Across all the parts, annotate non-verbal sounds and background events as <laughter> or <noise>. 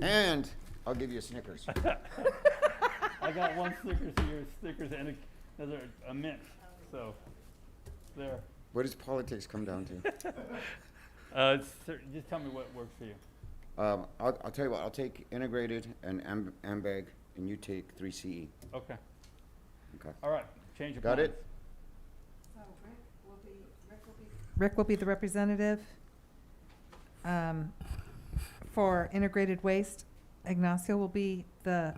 And I'll give you a Snickers. I got one Snickers here, Snickers and a, another, a mint, so, there. What does politics come down to? Uh, sir, just tell me what works for you. Um, I'll, I'll tell you what, I'll take integrated and Am- Ambag, and you take E. 3CE. Okay, Okay. all right, change of plans. Got it? So Oh, Rick will be, Rick will be. Rick will be the representative um, for integrated waste. Ignacio will be the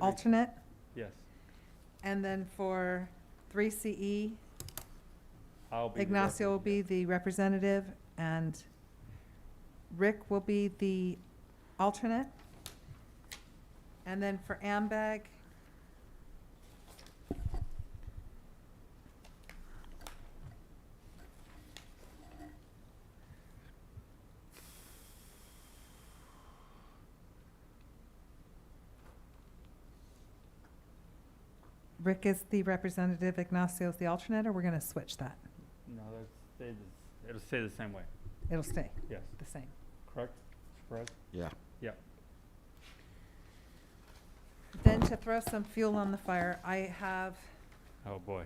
alternate. Yes, And then for E, 3CE, I'll be. the Ignacio will be representative. the representative and Rick will be the alternate. And then for AMBAG, Rick is the representative, Ignacio is the alternate, or we're going to switch that? No, that's, stay the- it'll stay the same way, It'll stay yes, the same. correct? Surprise? Yeah. Then to throw some fuel on the fire, I have, Oh, boy.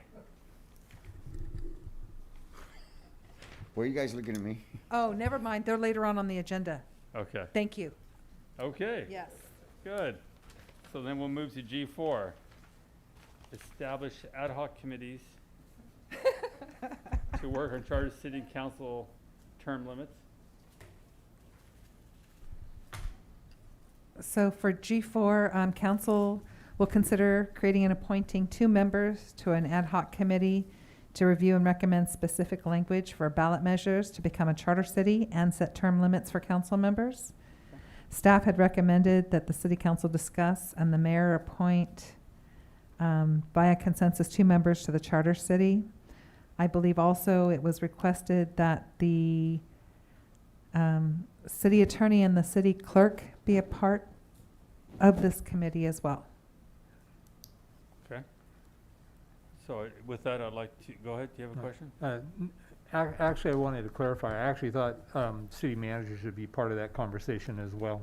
Why are you guys looking at me? oh, never mind, they're later on on the agenda. Okay, Thank you. okay. Yes. <laughs> Good. So then we'll move to G4. Establish ad hoc committees to work on charter city and council term limits. So for G4, um, council will consider creating and appointing two members to an ad hoc committee to review and recommend specific language for ballot measures to become a charter city and set term limits for council members. Staff had recommended that the city council discuss and the mayor appoint um, via consensus two members to the charter city. I believe also it was requested that the um, city attorney and the city clerk be a part of this committee as well. Okay? So I- with that, I'd like to, go ahead, do you have a Uh, question? Uh, n- ac- Actually, I wanted to clarify, I actually thought um, city manager should be part of that conversation as well.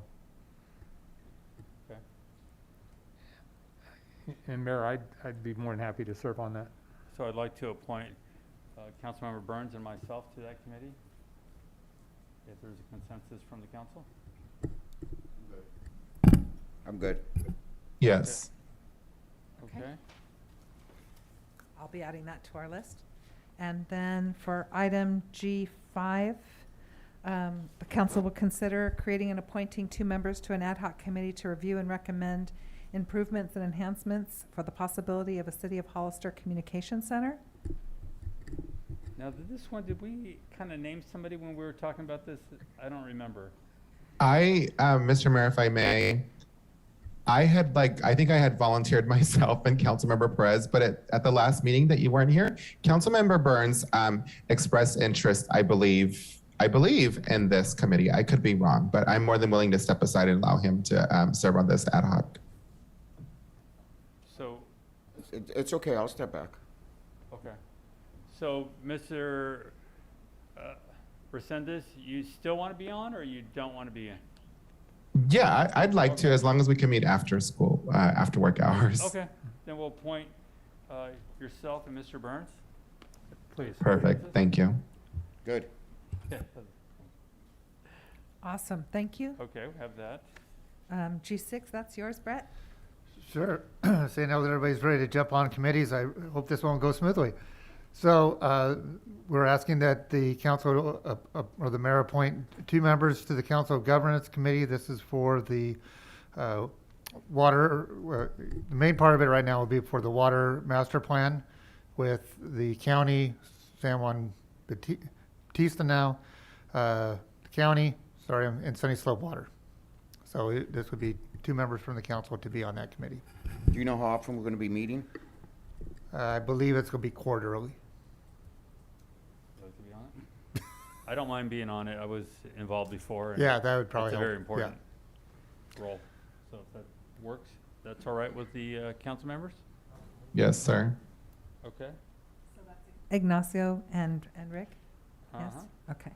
Okay. And Mayor, I'd, I'd be more than happy to serve on that. So I'd like to appoint uh, Councilmember Burns and myself to that committee, if there's a consensus from the council. I'm good. Yes. Okay. Okay? I'll be adding that to our list. And then for item G5, um, the council will consider creating and appointing two members to an ad hoc committee to review and recommend improvements and enhancements for the possibility of a City of Hollister Communication Center. Now, th- this one, did we kind of name somebody when we were talking about this? I don't remember. I, uh, Mr. Mayor, if I may, I had like, I think I had volunteered <laughs> myself and Councilmember Perez, but at, at the last meeting that you weren't here, Councilmember Burns um, expressed interest, I believe, I believe in this committee. I could be wrong, but I'm more than willing to step aside and allow him to um, serve on this ad hoc. So It, it's okay, I'll step back. Okay. So, Mr. uh, Resendez, you still want to be on or you don't want to be in? Yeah, I, I'd like to, as long as we can meet after school, uh, after work hours. Okay, then we'll appoint uh, yourself and Mr. Burns. Please. Perfect, thank you. Good. Okay, Awesome, thank you. Okay, we have that. Um, G6, that's yours, Brett? Sure. <clears throat> Seeing now that everybody's ready to jump on committees, I hope this one goes smoothly. So uh, we're asking that the council, uh, uh, or the mayor appoint two members to the Council Governance Committee. This is for the uh, water, uh, the main part of it right now will be for the water master plan with the county, San Juan Bati- Batista now, uh, county, sorry, and Sunny Slope Water. So it- this would be two members from the council to be on that committee. Do you know how often we're going to be meeting? Uh, I believe it's going to be quarterly. Would you like to be on it? I don't mind being on it. I was involved before. and Yeah, that would probably It's a help. very Yeah. important role. So if that works, that's all right with the uh, council members? Yes, sir. Okay? Ignacio and, and Rick? Yes? Uh-huh. Okay.